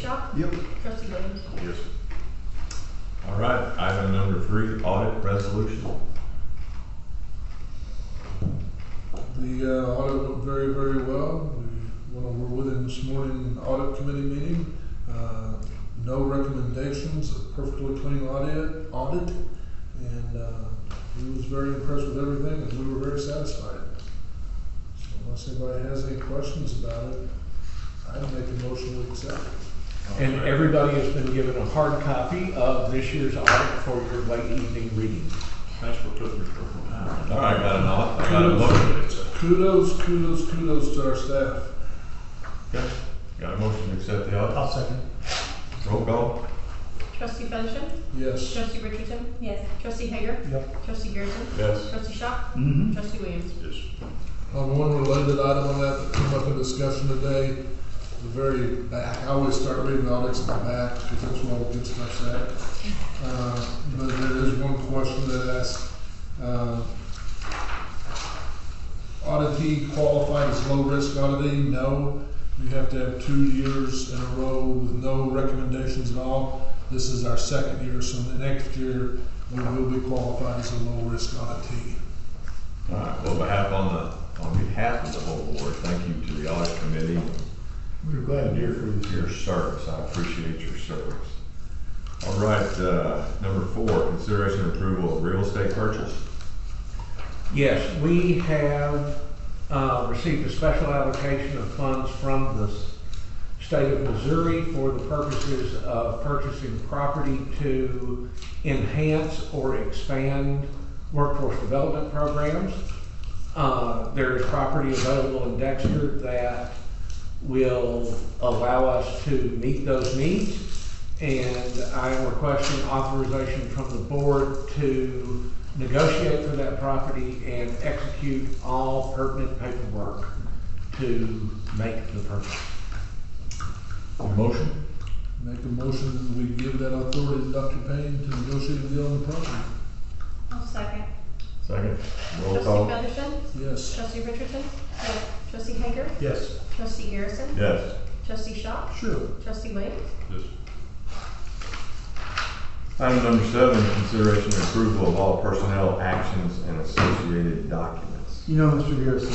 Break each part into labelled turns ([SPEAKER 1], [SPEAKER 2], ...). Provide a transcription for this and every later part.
[SPEAKER 1] Shaw?
[SPEAKER 2] Yep.
[SPEAKER 1] Trustee Williams?
[SPEAKER 3] Yes. All right, item number three, audit resolution.
[SPEAKER 4] The uh, audit went very, very well. We went over with him this morning, in the audit committee meeting. Uh, No recommendations, a perfectly clean audit, audit. And uh, he was very impressed with everything and we were very satisfied. So unless anybody has any questions about it, I'd make a motion to accept.
[SPEAKER 5] And everybody has been given a hard copy of this year's audit for your late evening reading.
[SPEAKER 3] Thanks for putting it for All right, got an audit, I got a motion.
[SPEAKER 4] Kudos, kudos, kudos to our staff.
[SPEAKER 3] Okay, Got a motion to accept the audit.
[SPEAKER 2] I'll second.
[SPEAKER 3] Roll call.
[SPEAKER 1] Trustee Featherston?
[SPEAKER 4] Yes.
[SPEAKER 1] Trustee Richardson? Yes. Trustee Hager?
[SPEAKER 2] Yep.
[SPEAKER 1] Trustee Garrison?
[SPEAKER 3] Yes.
[SPEAKER 1] Trustee Shaw?
[SPEAKER 2] Mm-hmm.
[SPEAKER 1] Trustee Williams?
[SPEAKER 3] Yes.
[SPEAKER 4] On one related item on that that came up in discussion today, the very back, I always start reading audits in the back because that's where all the good stuff's at. Uh, But there is one question that asks, uh, auditee qualified as low-risk auditee? No, you have to have two years in a row with no recommendations at all. This is our second year, so the next year, we will be qualified as a low-risk auditee.
[SPEAKER 3] All right, well, behalf on the, on behalf of the whole board, thank you to the audit committee
[SPEAKER 2] We're glad to hear from
[SPEAKER 3] for your service. I appreciate your service. All right, uh, number four, consideration and approval of real estate purchase.
[SPEAKER 5] Yes, we have uh, received a special allocation of funds from the s- state of Missouri for the purposes of purchasing property to enhance or expand workforce development programs. Uh, There is property available in Dexter that will allow us to meet those needs. And I am requesting authorization from the board to negotiate for that property and execute all pertinent paperwork to make the purchase.
[SPEAKER 3] Motion.
[SPEAKER 4] Make a motion that we give that authority to Dr. Payne to negotiate a deal on the property.
[SPEAKER 1] I'll second.
[SPEAKER 3] Second. Roll
[SPEAKER 1] Trustee
[SPEAKER 3] call.
[SPEAKER 1] Featherston?
[SPEAKER 4] Yes.
[SPEAKER 1] Trustee Richardson? Yes. Trustee Hager?
[SPEAKER 2] Yes.
[SPEAKER 1] Trustee Garrison?
[SPEAKER 3] Yes.
[SPEAKER 1] Trustee Shaw?
[SPEAKER 4] Sure.
[SPEAKER 1] Trustee Williams?
[SPEAKER 3] Yes. Item number seven, consideration and approval of all personnel actions and associated documents.
[SPEAKER 2] You know, Mr. Garrison,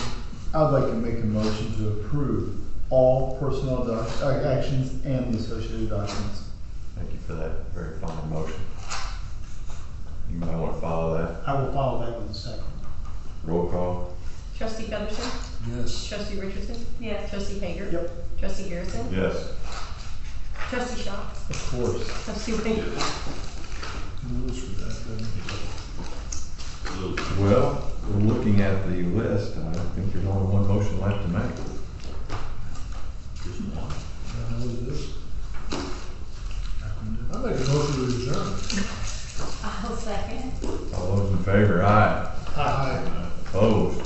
[SPEAKER 2] I'd like to make a motion to approve all personnel doc, uh, actions and the associated documents.
[SPEAKER 3] Thank you for that very fine motion. You might want to follow that.
[SPEAKER 2] I will follow that with a second.
[SPEAKER 3] Roll call.
[SPEAKER 1] Trustee Featherston?
[SPEAKER 4] Yes.
[SPEAKER 1] Trustee Richardson? Yes. Trustee Hager?
[SPEAKER 2] Yep.
[SPEAKER 1] Trustee Garrison?
[SPEAKER 3] Yes.
[SPEAKER 1] Trustee Shaw?
[SPEAKER 2] Of course.
[SPEAKER 1] Trustee Williams?
[SPEAKER 4] Rules for that, then.
[SPEAKER 3] Well, we're looking at the list, I think there's only one motion left to make.
[SPEAKER 4] I know what it is. I make a motion to adjourn.
[SPEAKER 1] I'll second.
[SPEAKER 3] All those in favor, aye.
[SPEAKER 4] Aye.
[SPEAKER 3] Opposed?